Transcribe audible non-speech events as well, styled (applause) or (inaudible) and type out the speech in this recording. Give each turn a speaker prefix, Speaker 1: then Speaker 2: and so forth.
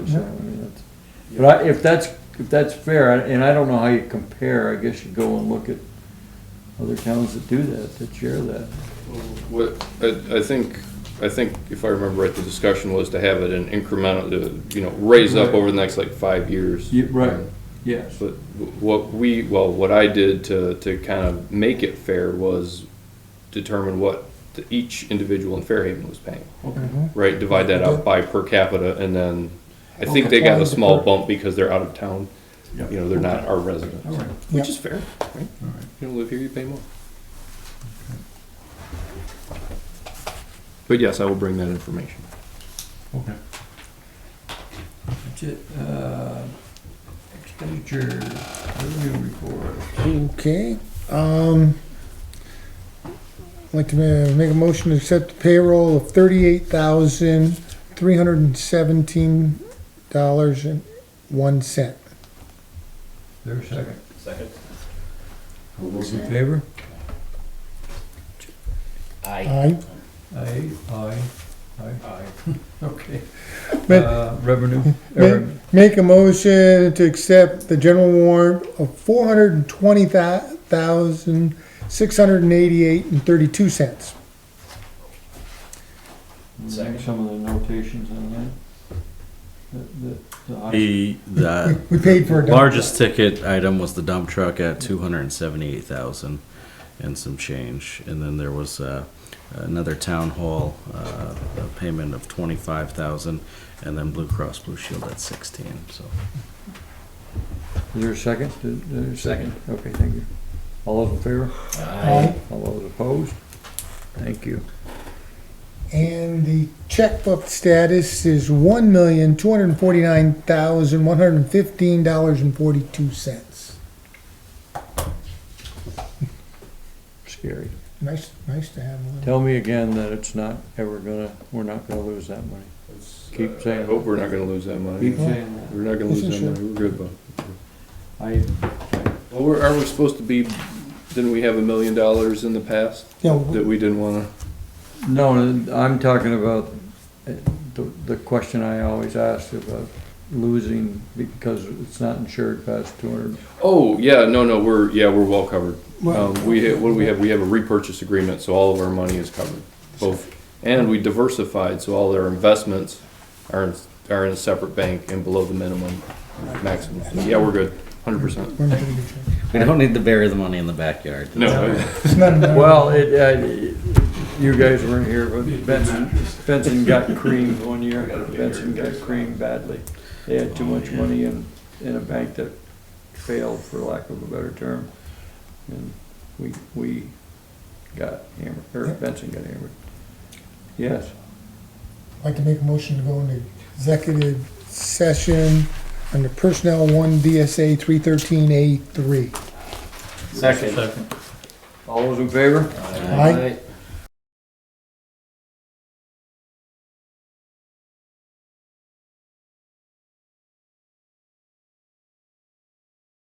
Speaker 1: so, I mean, that's- But I, if that's, if that's fair, and I don't know how you compare, I guess you go and look at other towns that do that, that share that.
Speaker 2: What, I, I think, I think if I remember right, the discussion was to have it an incremental, to, you know, raise up
Speaker 1: Right.
Speaker 2: over the next like five years. Um,
Speaker 1: Yeah, right, yes.
Speaker 2: But what we, well, what I did to, to kind of make it fair was determine what the- each individual in Fairhaven was paying,
Speaker 3: Mm-hmm.
Speaker 2: right? Divide that out by per capita and then, I think they got a small bump because they're out of town. You know, they're not our residents,
Speaker 1: All right.
Speaker 2: which is fair, right? You don't live here, you pay more. But yes, I will bring that information.
Speaker 4: Okay.
Speaker 1: That's it. Uh, Expenditure review report.
Speaker 3: Okay, um, I'd like to ma- make a motion to accept the payroll of thirty-eight thousand, three hundred and seventeen dollars and one cent.
Speaker 1: There's a second. All those in favor?
Speaker 3: Aye.
Speaker 1: Aye, aye, aye, aye. (laughs) Okay.
Speaker 3: Ma-
Speaker 1: Uh, Revenue,
Speaker 3: ma-
Speaker 1: er,
Speaker 3: Make a motion to accept the general warrant of four hundred and twenty thousand, six hundred and eighty-eight and thirty-two cents.
Speaker 1: Make some of the notations on that. The- the- the op-
Speaker 5: The, the
Speaker 3: We paid for a dump
Speaker 5: largest ticket item was the dump truck at two hundred and seventy-eight thousand and some change. And then there was, uh, another town hall, uh, a payment of twenty-five thousand and then Blue Cross Blue Shield at sixteen, so.
Speaker 1: Is there a second? Is there a second? Okay, thank you. All those in favor?
Speaker 3: Aye.
Speaker 1: All those opposed? Thank you.
Speaker 3: And the checkbook status is one million, two hundred and forty-nine thousand, one hundred and fifteen dollars and forty-two cents.
Speaker 1: Scary.
Speaker 3: Nice, nice to have one.
Speaker 1: Tell me again that it's not ever gonna, we're not gonna lose that money. Keep saying-
Speaker 2: uh, I hope we're not gonna lose that money.
Speaker 1: Keep saying that.
Speaker 2: We're not gonna lose
Speaker 3: Listen,
Speaker 2: that
Speaker 3: sure.
Speaker 2: money, we're good, bud.
Speaker 1: I,
Speaker 2: Well, we're, are we supposed to be, didn't we have a million dollars in the past
Speaker 3: Yeah,
Speaker 2: that
Speaker 3: w-
Speaker 2: we didn't wanna?
Speaker 1: no, I'm talking about uh, the, the question I always ask about losing because it's not insured past two hundred.
Speaker 2: Oh, yeah, no, no, we're, yeah, we're well covered.
Speaker 3: Well-
Speaker 2: Um, we, ha- what do we have? We have a repurchase agreement, so all of our money is covered, both. And we diversified, so all our investments are, in- are in a separate bank and below the minimum maximum. So, Yeah, we're good, hundred percent.
Speaker 3: we're not gonna get you.
Speaker 5: We don't need to bury the money in the backyard.
Speaker 2: No,
Speaker 3: It's not an-
Speaker 1: Well, it, uh, you guys weren't here, but Benson, Benson got creamed one year. Benson got creamed badly. They had too much money in, in a bank that failed, for lack of a better term. And we, we got hammered, or Benson got hammered. Yes.
Speaker 3: I'd like to make a motion to go into executive session under personnel one DSA three thirteen A three.
Speaker 1: Second. All those in favor?
Speaker 3: Aye.